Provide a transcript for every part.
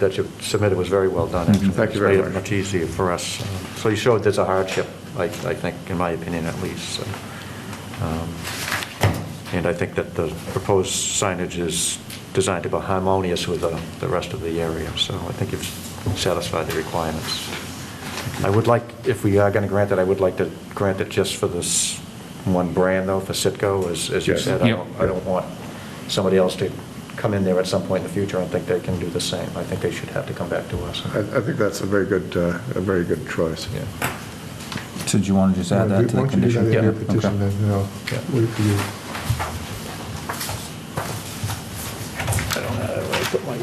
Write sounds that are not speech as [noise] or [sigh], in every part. that you submitted was very well done, actually. Mm-hmm. Thank you very It's made much. it much easier for us. So you showed there's a hardship, I, I think, in my opinion at least. so, um, And I think that the proposed signage is designed to be harmonious with the, the rest of the area, so I think you've satisfied the requirements. I would like, if we are going to grant it, I would like to grant it just for this one brand though, for Citgo, as, as you Yes. said. I Yep. don't, I don't want somebody else to come in there at some point in the future and think they can do the same. I think they should have to come back to us. I, I think that's a very good, uh, a very good choice. Yeah. So do you want to just add that to the Once you do condition? that in your Yeah, petition, okay. then, you know, Yeah. wait for you. I don't know where I put my, uh,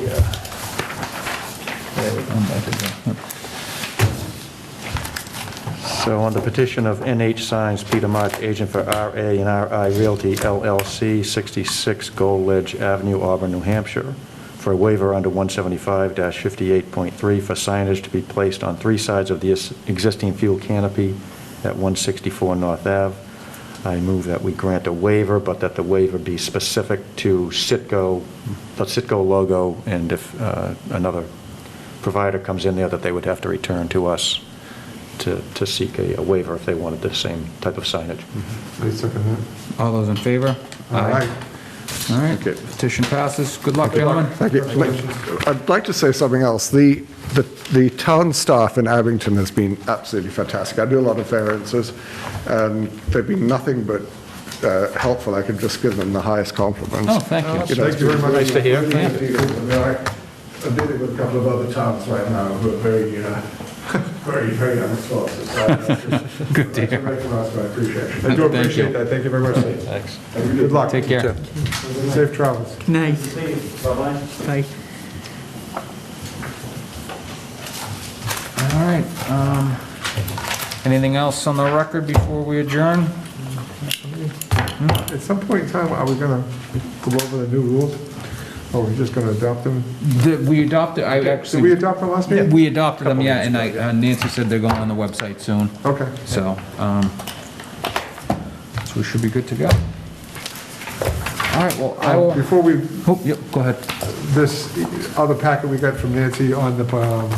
there we go. And that is, yeah. So on the petition of NH Signs, Peter March, agent for RA and RI Realty LLC, 66 Gold Ledge Avenue, Auburn, New Hampshire, for a waiver under 175-58.3 for signage to be placed on three sides of the es- existing fuel canopy at 164 North Ave. I move that we grant a waiver, but that the waiver be specific to Citgo, the Citgo logo, and if uh, another provider comes in there, that they would have to return to us to, to seek a a waiver if they wanted the same type of signage. I second that. All those in favor? Aye. All right, Okay. petition passes. Good luck, gentlemen. Thank you. I'd like to say something else. The, the, the town staff in Abington has been absolutely fantastic. I do a lot of variances, and they've been nothing but uh, helpful. I could just give them the highest compliments. Oh, thank you. know, Thank you very much. Nice to hear. Really happy to hear from you. I- I'm dealing with a couple of other towns right now who are very, [laughs] uh, very, very unresponsive. so uh, I- [laughs] Good to I hear. recognize my appreciation. Thank I you. do appreciate that. Thank you very much. Thanks. And Good luck. Take care. Safe travels. Nice. Bye. All right. um, Anything else on the record before we adjourn? At some point in time, are we going to go over the new rules? Or are we just going to adopt them? Did We adopted, I Did we actually, adopt them last meeting? we adopted them, yeah, and I- uh, Nancy said they're going on the website soon, Okay. so, um, so we should be good to go. All right, well, I will, Uh, Before we, oh, yep, go ahead. this other packet we got from Nancy on the um,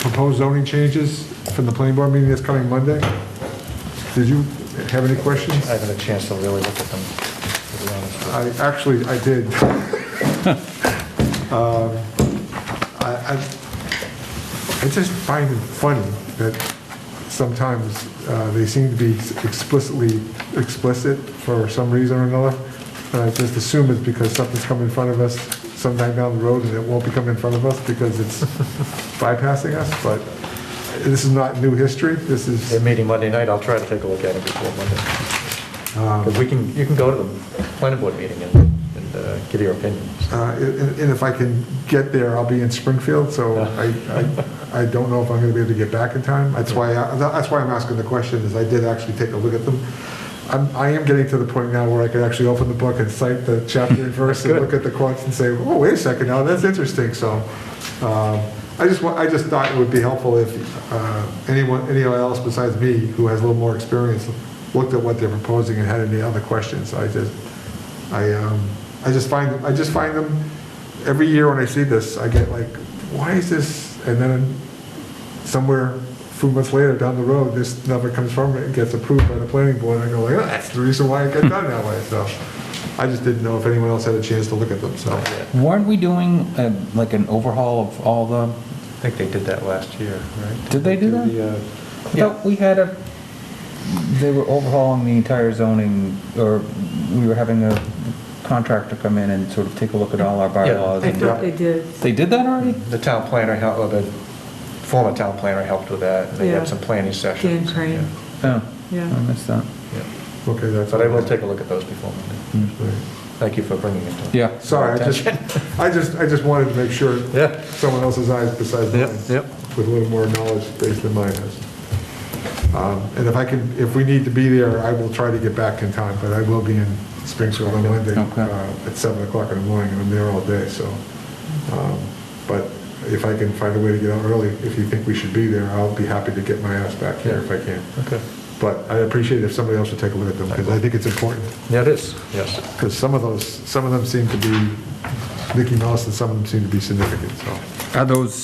proposed zoning changes from the planning board meeting that's coming Monday, did you have any questions? I haven't a chance to really look at them, to be honest. I, actually, I did. Um, I, I I just find it funny that sometimes uh, they seem to be explicitly explicit for some reason or another. And I just assume it's because something's come in front of us sometime down the road and it won't be coming in front of us because it's bypassing us, but this is not new history. This They're is, meeting Monday night, I'll try to take a look at it before Monday. 'Cause we can, you can go to the planning board meeting and, and uh, give your opinions. uh, and and if I can get there, I'll be in Springfield, so I, I, I don't know if I'm gonna be able to get back in time. That's why, I- that's why I'm asking the question, is I did actually take a look at them. I'm, I am getting to the point now where I can actually open the book and cite the chapter and verse and look at the quotes and say, oh, wait a second, now that's interesting, so. um, I just, wa- I just thought it would be helpful if uh, anyone, anyone else besides me who has a little more experience looked at what they're proposing and had any other questions, I just, I, um, I just find, I just find them, every year when I see this, I get like, why is this? And then somewhere, a few months later down the road, this number comes from it, gets approved by the planning board, and I go like, "Ah, that's the reason why it got done that way, so. I just didn't know if anyone else had a chance to look at them, so. Weren't we doing uh, like an overhaul of all the, I think they did that last year, right? Did they do that? The, uh, I thought we had a, they were overhauling the entire zoning, or we were having a contractor come in and sort of take a look at all our bylaws. I and- thought they did. They did that already? The town planner, hel- or the former town planner helped with that, and they Yeah. had some planning sessions. Dan Crane. Oh, I Yeah. missed that. Yeah, Okay, yeah. that's. But I will take a look at those before Monday. Thank you for bringing it to. Yeah. Sorry, I just, I just, I just wanted to make sure Yeah. someone else's eyes besides Yep, mine. yep. With a little more knowledge based than mine has. Um, And if I can, if we need to be there, I will try to get back in time, but I will be in Springfield on Monday Okay. uh, at 7 o'clock in the morning, and I'm there all day, so. um, But if I can find a way to get out early, if you think we should be there, I'll be happy to get my ass back here if I can. Okay. But I appreciate if somebody else would take a look at them, because I think it's important. Yeah, it is, yes. Because some of those, some of them seem to be Mickey Mouse and some of them seem to be significant, so. Are those